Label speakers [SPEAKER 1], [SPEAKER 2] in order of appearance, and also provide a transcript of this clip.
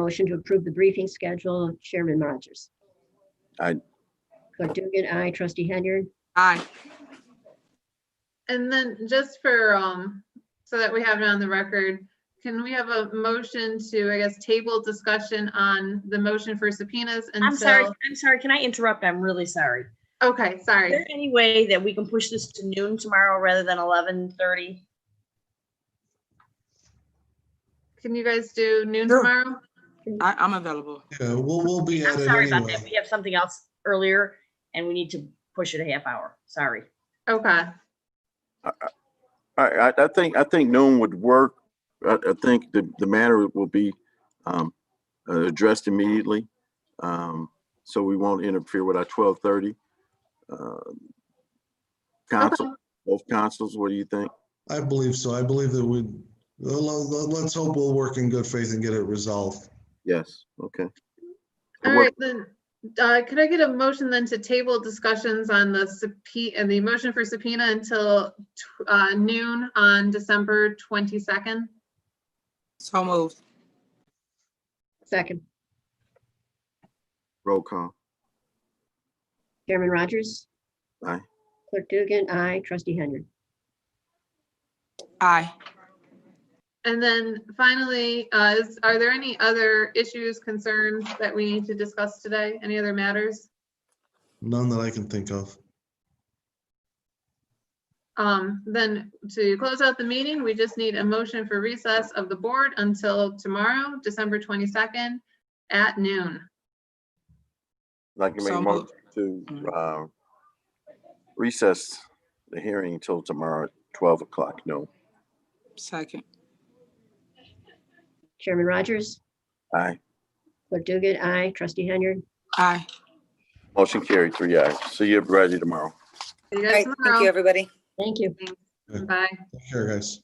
[SPEAKER 1] motion to approve the briefing schedule. Chairman Rogers.
[SPEAKER 2] Aye.
[SPEAKER 1] Clerk Dugan, aye. Trustee Henyard.
[SPEAKER 3] Aye.
[SPEAKER 4] And then just for, um, so that we have it on the record, can we have a motion to, I guess, table discussion on the motion for subpoenas
[SPEAKER 5] I'm sorry,
[SPEAKER 4] until?
[SPEAKER 5] I'm sorry. Can I interrupt? I'm really sorry.
[SPEAKER 4] Okay,
[SPEAKER 5] Is there
[SPEAKER 4] sorry.
[SPEAKER 5] any way that we can push this to noon tomorrow rather than eleven thirty?
[SPEAKER 4] Can you guys do noon
[SPEAKER 3] Sure.
[SPEAKER 4] tomorrow?
[SPEAKER 3] I, I'm available.
[SPEAKER 6] Yeah, we'll, we'll be
[SPEAKER 5] I'm
[SPEAKER 6] at it
[SPEAKER 5] sorry about that.
[SPEAKER 6] anyway.
[SPEAKER 5] We have something else earlier and we need to push it a half hour. Sorry.
[SPEAKER 4] Okay,
[SPEAKER 2] I, I, I think, I think noon would work. I, I think the, the matter will be, um, uh, addressed immediately. Um, so we won't interfere with our twelve thirty. uh, Council, both councils, what do you think?
[SPEAKER 6] I believe so. I believe that we, let's hope we'll work in good faith and get it resolved.
[SPEAKER 2] Yes, okay.
[SPEAKER 4] all right, then, uh, could I get a motion then to table discussions on the subpoena, and the motion for subpoena until, tw- uh, noon on December twenty-second?
[SPEAKER 3] So moved.
[SPEAKER 1] Second.
[SPEAKER 2] Roll call.
[SPEAKER 1] Chairman Rogers.
[SPEAKER 2] Aye.
[SPEAKER 1] Clerk Dugan, aye. Trustee Henyard.
[SPEAKER 3] Aye.
[SPEAKER 4] And then finally, uh, is, are there any other issues, concerns that we need to discuss today? Any other matters?
[SPEAKER 6] None that I can think of.
[SPEAKER 4] Um, then to close out the meeting, we just need a motion for recess of the board until tomorrow, December twenty-second at noon.
[SPEAKER 2] Like you make a
[SPEAKER 3] So
[SPEAKER 2] motion to, uh, recess the hearing until tomorrow at twelve o'clock, no.
[SPEAKER 3] Second.
[SPEAKER 1] Chairman Rogers.
[SPEAKER 2] Aye.
[SPEAKER 1] Clerk Dugan, aye. Trustee Henyard.
[SPEAKER 3] Aye.
[SPEAKER 2] Motion carried, three ayes. See you, everybody, tomorrow.
[SPEAKER 4] See you
[SPEAKER 7] All right,
[SPEAKER 4] guys
[SPEAKER 7] thank you,
[SPEAKER 4] tomorrow.
[SPEAKER 7] everybody.
[SPEAKER 1] Thank you.
[SPEAKER 4] Bye.
[SPEAKER 6] Take care, guys.